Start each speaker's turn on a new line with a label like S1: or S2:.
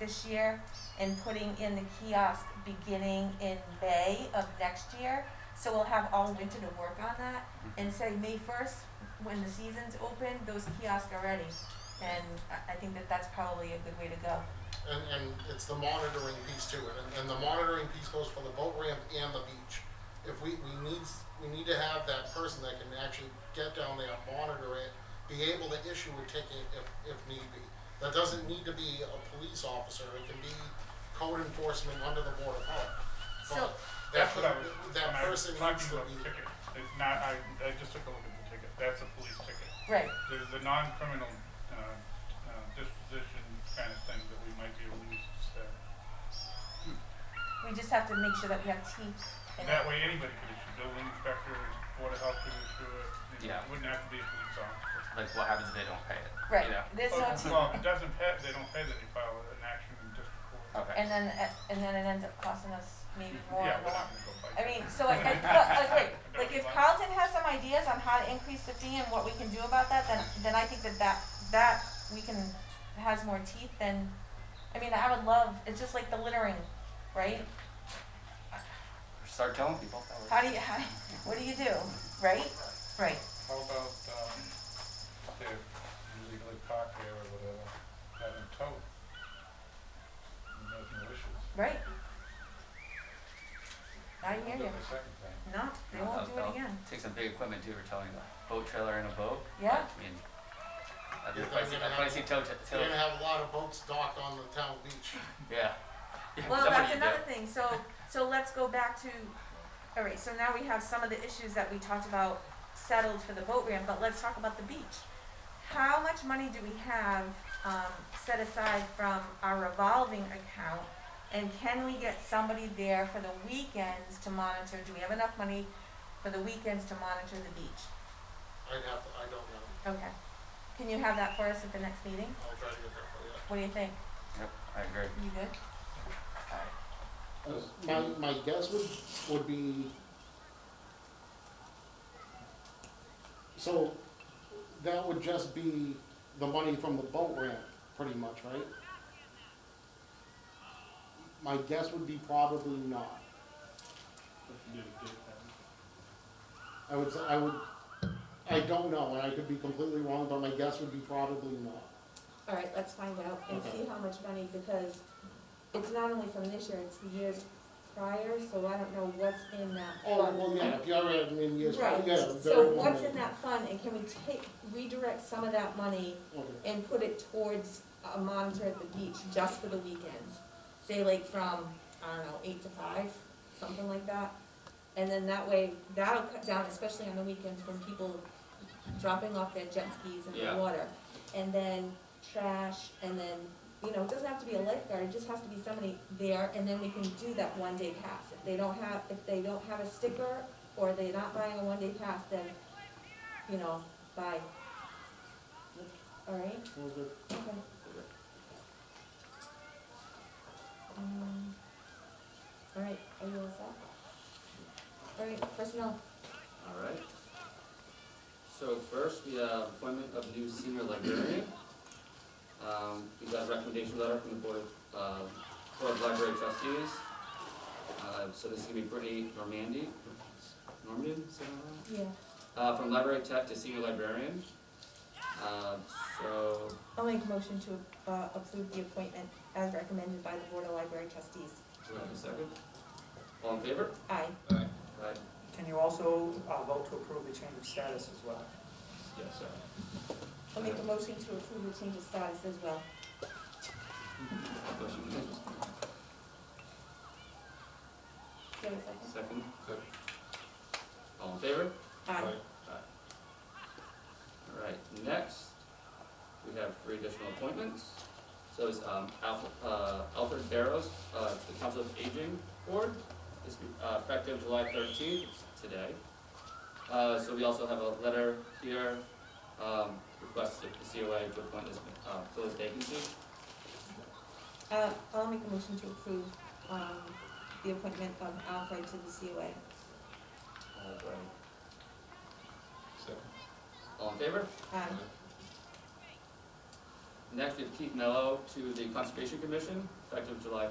S1: this year and putting in the kiosk beginning in May of next year. So we'll have all winter to work on that and say May first, when the season's open, those kiosks are ready. And I, I think that that's probably a good way to go.
S2: And, and it's the monitoring piece too, and, and the monitoring piece goes for the boat ramp and the beach. If we, we need, we need to have that person that can actually get down there, monitor it, be able to issue a ticket if, if need be. That doesn't need to be a police officer, it can be code enforcement under the board of health.
S1: So-
S2: But that,
S3: That's what I was, when
S2: that
S3: I was
S2: person needs
S3: talking
S2: to
S3: about the
S2: be,
S3: ticket, it's not, I, I just took a look at the ticket, that's a police ticket.
S1: Right,
S3: There's the non-criminal, uh, uh, disposition kind of thing that we might be able to use instead.
S1: we just have to make sure that we have teeth and.
S3: That way, anybody could issue, building inspector, board of health could issue it, you know,
S4: Yeah.
S3: it wouldn't have to be a police officer.
S4: Like, what happens if they don't pay it?
S1: Right,
S4: You know?
S1: there's
S3: Oh,
S1: no teeth.
S3: Well, if it doesn't pay, they don't pay, then you file an action in district court.
S4: Okay.
S1: And then, and then it ends up costing us maybe more.
S3: Yeah,
S1: or
S3: we're
S1: more.
S3: not gonna go fight.
S1: I mean, so like, I, but, like, wait, like if Carlton has some ideas on how to increase the fee and what we can do about that, then, then I think that that, that we can, has more teeth than, I mean, I would love, it's just like the littering, right?
S4: Start telling people. that we're-
S1: How do you, how, what do you do, right? Right,
S5: How about, um, they're illegally parked there or whatever, have them towed? And Make no issues.
S1: right. I hear
S5: Do
S1: you.
S5: it the second time.
S1: No, they won't
S4: That'll-
S1: do it
S4: that'll
S1: again.
S4: Take some big equipment too, we're telling them, boat trailer and a boat.
S1: Yeah.
S4: I mean,
S2: Yeah,
S4: that's what I see,
S2: they're gonna
S4: that's what I
S2: have-
S4: see tow, t-
S2: you're gonna
S4: tow,
S2: have a lot of boats docked on the town beach.
S4: yeah. Yeah,
S1: Well,
S4: somebody
S1: that's
S4: did.
S1: another thing, so, so let's go back to, all right, so now we have some of the issues that we talked about settled for the boat ramp, but let's talk about the beach. How much money do we have, um, set aside from our revolving account? And can we get somebody there for the weekends to monitor, do we have enough money for the weekends to monitor the beach?
S2: I'd have, to- I don't know,
S1: Okay, can you have that for us at the next meeting?
S2: I'll try to get that for you.
S1: What do you think,
S4: Yep, I agree.
S1: you good?
S2: My, my guess would, would be. So, that would just be the money from the boat ramp, pretty much, right? My guess would be probably not. I would say, I would, I don't know, and I could be completely wrong, but my guess would be probably not.
S6: All right, let's find out and see how much money, because it's not only from this year, it's the years prior, so I don't know what's in that
S2: Oh,
S6: fund.
S2: well, yeah, if you already have many years, yeah,
S6: Right,
S2: very
S6: so
S2: well
S6: what's
S2: made.
S6: in that fund, and can we take, redirect some of that money
S2: Okay.
S6: and put it towards a monitor at the beach just for the weekends? Say like from, I don't know, eight to five, something like that, and then that way, that'll cut down, especially on the weekends, from people dropping off their jet skis in
S4: Yeah.
S6: the water. And then trash, and then, you know, it doesn't have to be a lifeguard, it just has to be somebody there, and then we can do that one day pass. If they don't have, if they don't have a sticker, or they're not buying a one day pass, then, you know, buy. Alright?
S2: Well, good.
S6: Okay. Um, All right, are you all set? All right, personnel,
S7: All right. So first, we have appointment of new senior librarian. Um, we got a recommendation letter from the board of, uh, board of library trustees. Uh, so this is gonna be Brittany Normandy, Normandy, is that right?
S6: yeah,
S7: Uh, from library tech to senior librarian. Uh, so,
S6: I'll make a motion to, uh, approve the appointment as recommended by the Board of Library Trustees.
S7: do we have a second? All in favor?
S6: Aye.
S7: Right,
S8: Can you also uh, vote to approve the change of status as well?
S7: yes, sir.
S6: I'll make a motion to approve the change of status as well.
S7: Motion carries.
S6: Do you have a second?
S7: Second? All in favor?
S6: Aye.
S7: All right, next, we have three additional appointments. So it's, um, Alf- uh, Alfred Barrows, uh, to the Council of Aging Board, this, uh, effective July thirteenth, today. Uh, so we also have a letter here, um, requested the COA to appoint this, uh, fill this vacancy.
S6: Uh, I'll make a motion to approve, um, the appointment of Alfred to the COA.
S7: All right. All in favor?
S6: Aye.
S7: Next, we have Keith Mello to the Conservation Commission, effective July